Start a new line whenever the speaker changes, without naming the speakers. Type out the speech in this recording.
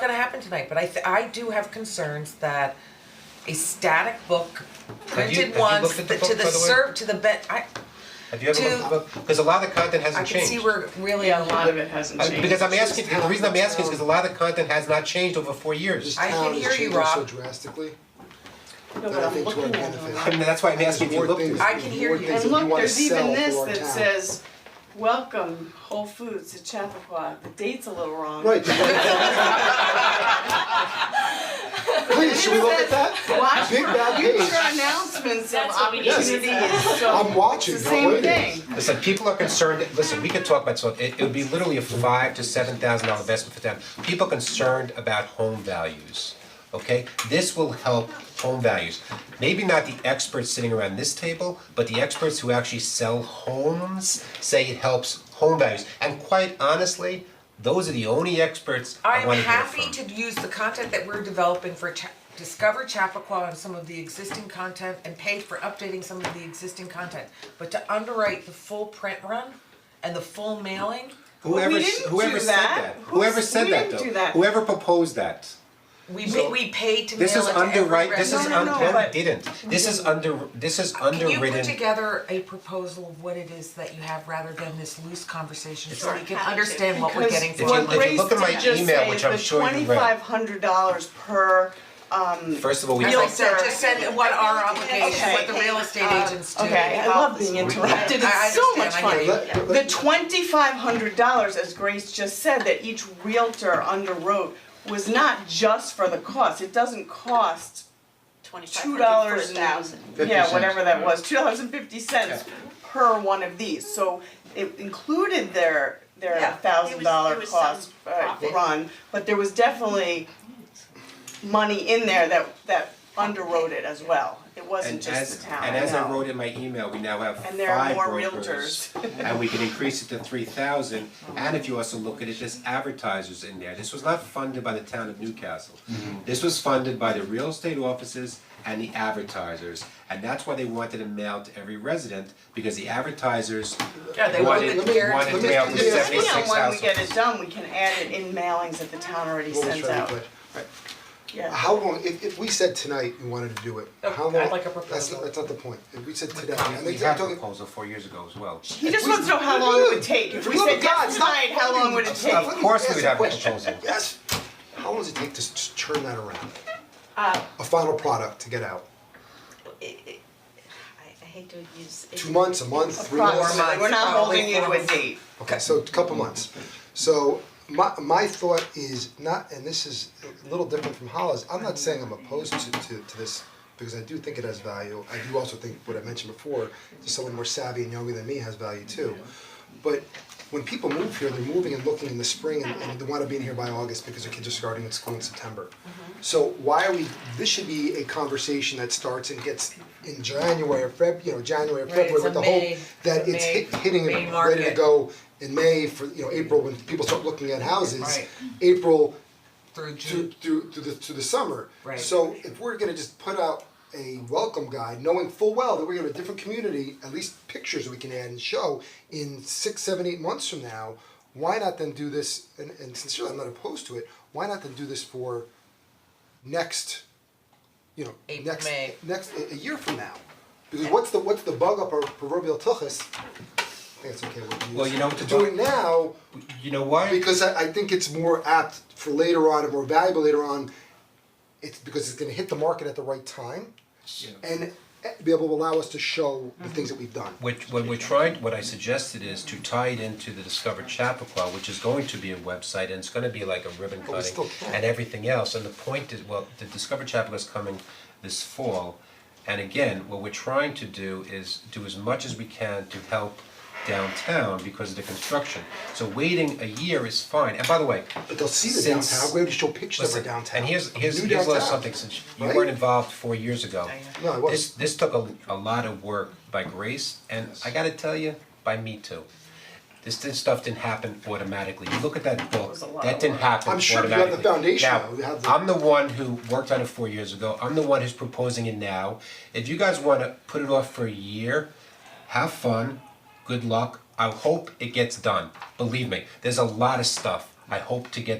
not gonna happen tonight, but I th- I do have concerns that a static book
Have you- have
printed
you
once
looked at the
th- to
book,
the
by the way?
serve, to the bet, I
Have you ever
To-
looked at the book? Because a lot of the content
I
hasn't
can
changed.
see we're really
Yeah,
a
a lot of
lot.
it hasn't
Uh,
changed.
Because I'm asking, the reason I'm asking is because a lot of the content has not changed over four years.
I can hear you,
This town
Rob.
is changing so drastically,
No,
that I think to our benefit.
I mean, that's why I'm asking if you
There's more
looked at
things-
it.
I can hear
more
you.
things
And
that we
look,
wanna
there's even
sell
this
to our
that
town.
says, welcome Whole Foods to Chappaqua, the date's a little wrong.
Right. Please, should we look at that?
Watch
Big
for
bad
future
page.
announcements of
That's what we need.
opportunities, so.
I'm watching,
It's the
I'm
same
waiting.
thing.
Listen, people are concerned, listen, we could talk about, so it it would be literally a five to seven thousand dollar investment for them. People are concerned about home values, okay? This will help home values. Maybe not the experts sitting around this table, but the experts who actually sell homes say it helps home values. And quite honestly, those are the only experts
I
I
am
wanna hear from.
happy to use the content that we're developing for Cha- Discover Chappaqua and some of the existing content and pay for updating some of the existing content. But to underwrite the full print run and the full mailing,
Whoever,
we
s-
didn't
whoever
do
said
that.
that,
Who's-
whoever said
we
that
didn't
though,
do that.
whoever proposed that,
we ma- we pay to mail it
this
to
is underwrite,
every
this is
resident.
No,
un,
no, no,
no,
but-
didn't, this is under, this is
Can you put
underwritten,
together a proposal of what it is that you have rather than this loose conversation, so we can
Sure.
understand what we're getting
If you-
for?
if you look at my email, which I'm sure you read.
twenty-five hundred dollars per, um,
first of all, we.
As
Real
I said,
estate.
just send what our obligation,
Okay.
what the real estate agents do.
okay, I
about
love
this.
being interrupted,
I- I
it's so much
understand, I
fun.
hear you.
Let- let-
The twenty-five hundred dollars, as Grace just said, that each realtor underwrote was not just for the cost, it doesn't cost two dollars and, yeah,
cents.
whatever that was, two dollars and fifty cents per one of these, so it included their,
Yeah,
their
there
thousand dollar
was- there was
cost,
some
uh,
profit.
run, but there was definitely money in there that, that underwrote it as well, it wasn't
And
just
as,
the town,
and as I
no.
wrote in my email, we now have five brokers.
And there are more
And we can increase it to three thousand, and if you also look at it, there's advertisers in there, this was not funded by the town of Newcastle. This was funded by the real estate offices and the advertisers, and that's why they wanted it mailed to every resident, because the advertisers
Yeah, they
wanted,
wanted guaranteed-
wanted mail to
Let me-
seventy-six
let me-
households.
Depending on when we get it done, we can add it in mailings that the town already
What was
sends
trying to
out,
put- right.
yeah.
How long, if if we said tonight we wanted to do it,
Oh,
how
I'd
long,
like a
that's
proposal.
not, that's not the point, if we said today,
Um,
I'm
We had a
talking-
proposal four years ago as well.
He just wants to know how long it would take, if we said yes
stop
tonight, how long would it
fucking-
take?
Of course we would have a
Ask question.
proposal.
Yes, how long does it take to s- to turn that around?
Uh,
A final product to get out,
I hate to use.
two months, a month, three months?
Approximately, we're not
Probably
holding you to
four
a
months.
date.
Okay, so a couple months. So my my thought is not, and this is a little different from Hollis, I'm not saying I'm opposed to to to this because I do think it has value. I do also think what I mentioned before, to someone more savvy and younger than me has value too. But when people move here, they're moving and looking in the spring and and they wanna be in here by August because their kids are starting at school in September.
Mm-hmm.
So why are we, this should be a conversation that starts and gets in January or Feb, you know, January or
Right, it's
February with
a
the whole,
May-
that
it's a
it's
May-
hit hitting
May
and ready to
market.
go go in May for, you know, April, when people start looking at houses,
Right.
April
Through
to
June,
through to the to the summer.
Right.
So if we're gonna just put out a welcome guide, knowing full well that we're gonna have a different community, at least pictures we can add and show in six, seven, eight months from now, why not then do this, and and sincerely, I'm not opposed to it, why not then do this for next, you know,
April,
next,
May.
next, a a year from now? Because what's the what's the bug up our proverbial tuchus? I think it's okay what you use.
Well, you know what the
Do
bug-
it now,
You know why?
Um, because I, I think it's more apt for later on and more valuable later on. It's because it's gonna hit the market at the right time and eh, be able to allow us to show the things that we've done.
Which, what we're trying, what I suggested is to tie it into the Discover Chappaqua, which is going to be a website and it's gonna be like a ribbon
But we
cutting
still can't.
and everything else, and the point is, well, the Discover Chappaqua is coming this fall. And again, what we're trying to do is do as much as we can to help downtown because of the construction. So waiting a year is fine, and by the way,
But they'll see the
Since-
downtown, we're able to show pictures of our
Listen,
downtown,
and here's here's
new
here's a little
downtown.
something, since you
right?
weren't involved four years ago.
know. No, I wasn't.
This this took a a lot of work by Grace, and I gotta tell you, by me too. This this stuff didn't happen automatically, you look at that book,
was a lot
that
of
didn't
work.
happen automatically.
I'm sure if you have the foundation, you have the-
Now, I'm the one who worked on it four years ago, I'm the one who's proposing it now. If you guys wanna put it off for a year, have fun, good luck, I hope it gets done, believe me, there's a lot of stuff I hope to get